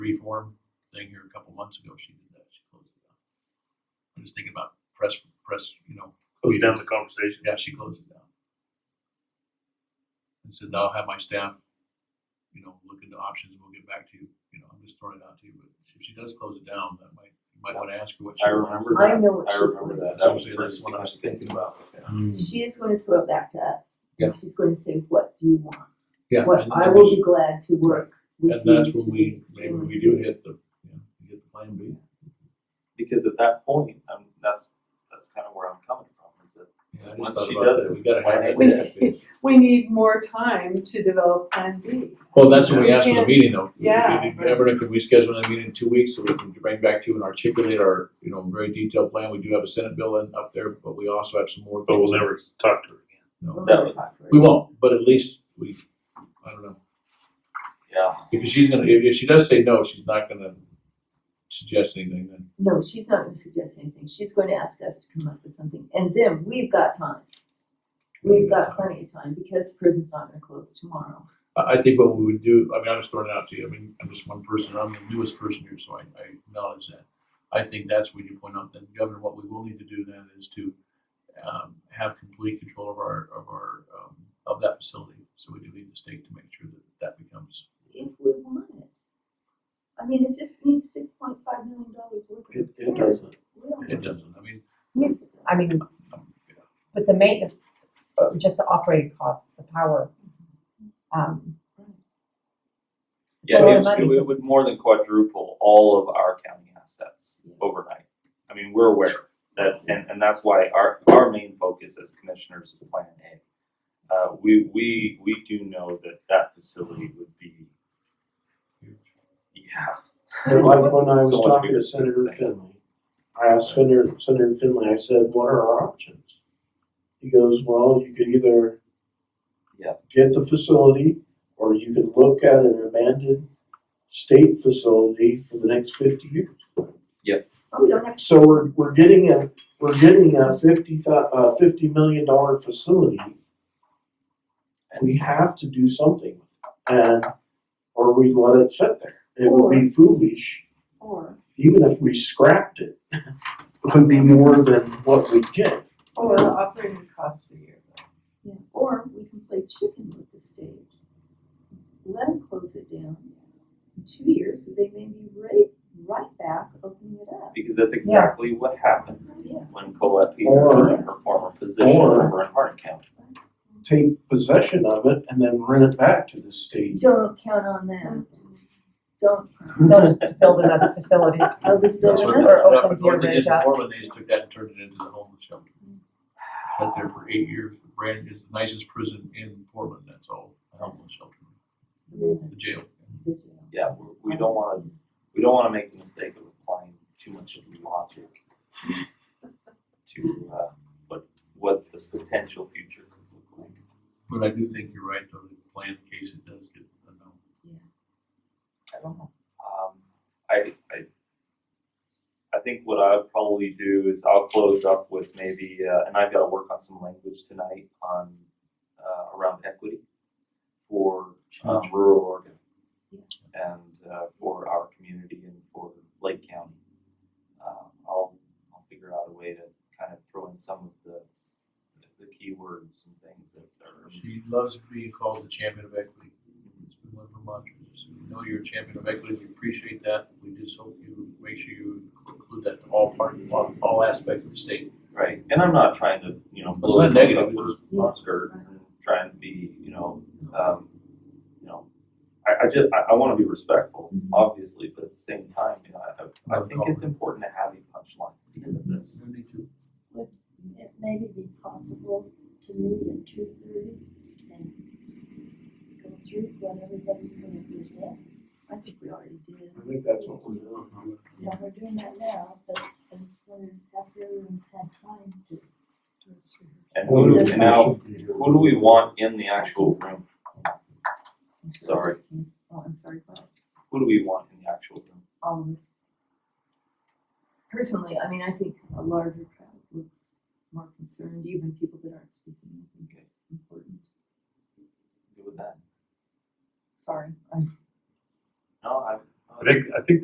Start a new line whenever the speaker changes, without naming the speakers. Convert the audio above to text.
form thing here a couple months ago, she did that, she closed it down. I'm just thinking about press, press, you know,
Close down the conversation.
yeah, she closed it down. And said, I'll have my staff, you know, look into options, we'll get back to you, you know, I'm just throwing it out to you, but if she does close it down, that might, you might wanna ask her what she.
I remember
I
that,
know what
I
she's
remember
gonna
that,
say.
that was the
Essentially,
first
that's
thing
what
I was thinking about.
Mm.
She is going to throw it back to us.
Yeah.
She's going to say, what do you want?
Yeah.
What,
and-
I
and
will
she-
be glad to work with you.
And that's when
to
we, maybe
explore."
we do hit the, you know, we get the plan B.
Because at that point, I'm, that's, that's kind of where I'm coming from, is that
Yeah, I
Once
just thought
she
about
does
that.
it,
We gotta have that.
why
not?
step in.
We need more time to develop Plan B.
Well, that's what we asked for the
Can't-
meeting though.
yeah.
Everett, can we schedule a meeting in two weeks so we can bring back to you and articulate our, you know, very detailed plan? We do have a Senate bill in up there, but we also have some more.
But we'll
things.
never talk to her again.
No.
That was-
We won't, but at least we, I don't know,
Yeah,
because she's gonna, if, if she does say no, she's not gonna suggest anything then.
No, she's not gonna suggest anything, she's going to ask us to come up with something, and then we've got time. We've got plenty of time, because prison's not gonna close tomorrow.
I, I think what we would do, I mean, I'm just throwing it out to you, I mean, I'm just one person, I'm the newest person here, so I, I acknowledge that. I think that's when you point out that Governor, what we will need to do then is to, um, have complete control of our, of our, um, of that facility. So we do need the state to make sure that that becomes,
If we want it. I mean, if it needs six point five million dollars worth of
It- it
repairs,
doesn't.
we'll-
it doesn't, I mean, um,
I mean, with the maintenance, uh, just the operating costs, the power.
Mm-hmm.
Um,
yeah,
So
it,
money.
it would- it would more than quadruple all of our county assets overnight. I mean, we're aware that, and, and that's why our, our main focus as commissioners is Plan A. Uh, we, we, we do know that that facility would be, yeah,
And like when I was
So much
talking
bigger.
to Senator Finley, I asked Senator, Senator Finley, I said, what are our options? He goes, well, you could either
Yeah.
get the facility, or you could look at an abandoned state facility for the next fifty years.
Oh, we don't have to.
So we're, we're getting a, we're getting a fifty thou- uh, fifty million dollar facility. We have to do something, and, or we let it sit there. It would be foolish
Or,
even if we scrapped it, it would be more than what we get.
or the Oh, operating costs a year.
Yeah, or we can play chicken with the state. Let them close it down. In two years, they may be right, right back opening it up.
because that's exactly what happened.
Yeah.
when Colette Peters was in her former position
Or-
over in Hardin County.
Take possession of it and then rent it back to the state.
Don't count on that. Don't,
they'll just build another facility.
oh, this
that's
building
what,
up.
that's what
Or
happened,
open your
what they did
ridge
in
up.
Portland, they just took that and turned it into the homeless shelter. Sat there for eight years, the brand is the nicest prison in Portland, that's all, a homeless shelter, the jail.
Yeah, we- we don't wanna, we don't wanna make the mistake of applying too much logic to, uh, what, what the potential future could look like.
But I do think you're right, though, the plan in case it does get, I know.
I don't know. Um, I, I, I think what I'll probably do is I'll close up with maybe, uh, and I've gotta work on some language tonight on, uh, around equity for, um,
Oh.
rural Oregon. And, uh, for our community and for Lake County. Um, I'll, I'll figure out a way to kind of throw in some of the, the keywords and things that are.
She loves being called the champion of equity. It's been one of her mantras. So We know you're a champion of equity. We appreciate that. We just hope you make sure you include that to all parties, all, all aspects of the state.
Right, and I'm not trying to, you know,
It's not negative,
blow
it's
smoke up or skirt and trying to be, you know, um, you know, I, I just, I, I wanna be respectful,
Mm-hmm.
obviously, but at the same time, you know, I, I
Of
think it's important to have a punchline at the end of this.
Me too.
It may be possible to meet at two thirty and s- go through what everybody's gonna present.
I think we already did.
I think that's what we're doing.
Now, we're doing that now, but I just wondered after everyone's had time to.
And who do we
Yeah.
now, who do we want in the actual room? Sorry,
Oh, I'm sorry, but
who do we want in the actual room?
all of us. Personally, I mean, I think a larger crowd looks more concerned, even people that aren't speaking, I think it's important.
Who would that?
Sorry, I'm
No, I.
I think, I think